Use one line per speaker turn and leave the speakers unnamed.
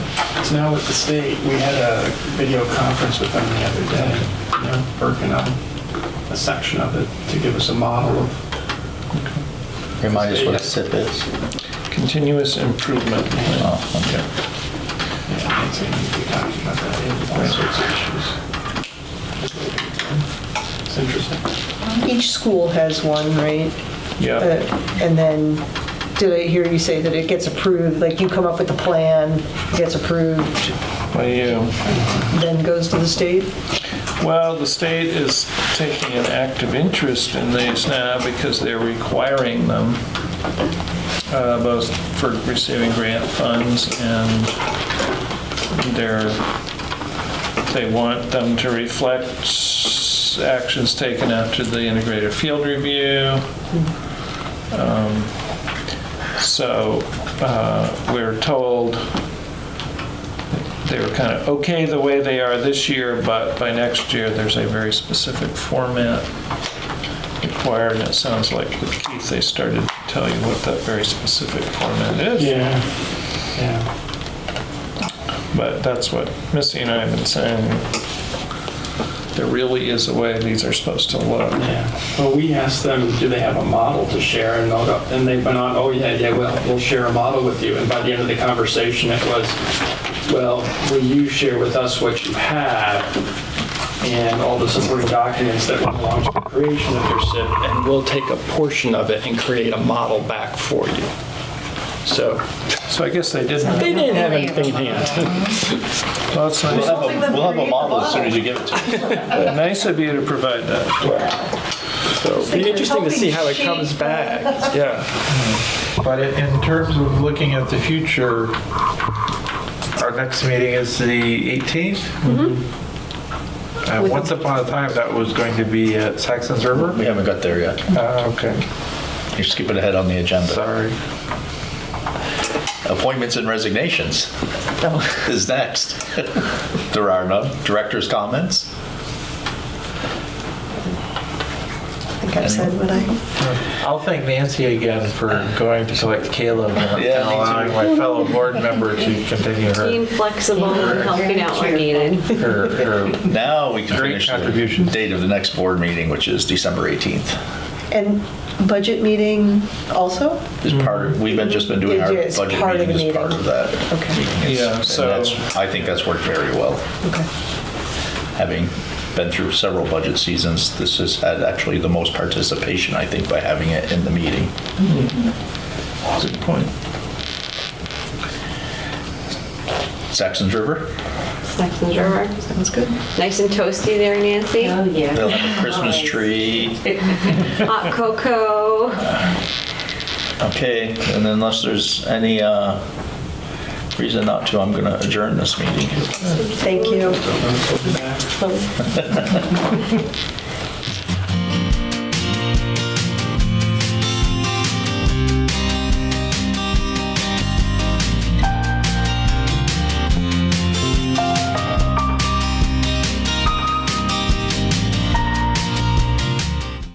now with the state, we had a video conference with them the other day, you know, working on a section of it to give us a model of.
Remind us what a SIP is.
Continuous improvement. plan.
Oh, okay.
Yeah, it's, we talked about that, and all sorts of issues. It's interesting.
Each school has one, right? Uh,
Yeah,
And then, did I hear you say that it gets approved, like you come up with a plan, gets approved,
by you.
then goes to the state?
Well, the state is taking an active interest in these now because they're requiring them, uh, both for receiving grant funds and they're, they want them to reflect s- actions taken after the integrated field review. Um, So uh, we're told they were kind of okay the way they are this year, but by next year, there's a very specific format required, and it sounds like with Keith, they started to tell you what that very specific format is.
Yeah, yeah.
But that's what Missy and I have been saying. There really is a way these are supposed to look.
Yeah, well, we asked them, do they have a model to share? And they'll go- and they've been on, oh, yeah, yeah, well, we'll share a model with you. And by the end of the conversation, it was, well, will you share with us what you have and all the supporting documents that belong to the creation of your SIP? And we'll take a portion of it and create a model back for you. So
So I guess they did
they
that.
didn't have anything in hand.
Well, it's nice-
We'll have a- we'll have a model as soon as you give it to us.
nice of you to provide that.
So it'll be interesting to see how it comes back. Yeah.
But in- in terms of looking at the future, our next meeting is the 18th. Uh, Once upon a time, that was going to be at Saxon's River.
We haven't got there yet.
Ah, Okay,
You're skipping ahead on the agenda.
sorry.
Appointments and resignations
Oh.
is next. There are none. Director's comments?
I think I said what I,
I'll thank Nancy again for going to select Caleb and
Yeah, me too.
allowing my fellow board member to continue her,
Being flexible and helping out where needed.
her, her
Now we can
Great
finish the
contribution.
date of the next board meeting, which is December 18th.
and budget meeting also?
Is part, of- we've been, just been doing
Mm-hmm. Yeah,
our
yeah, it's
budget
part of
meeting
the
as part
meeting.
of that.
Okay,
It's-
Yeah,
and
so-
that's- I think that's worked very well.
okay.
Having been through several budget seasons, this has had actually the most participation, I think, by having it in the meeting.
Good point.
Saxon's River,
Saxon's River.
Sounds good.
Nice and toasty there, Nancy.
Oh, yeah.
they'll have a Christmas tree.
Hot cocoa.
Okay, and unless there's any uh, reason not to, I'm going to adjourn this meeting.
Thank you.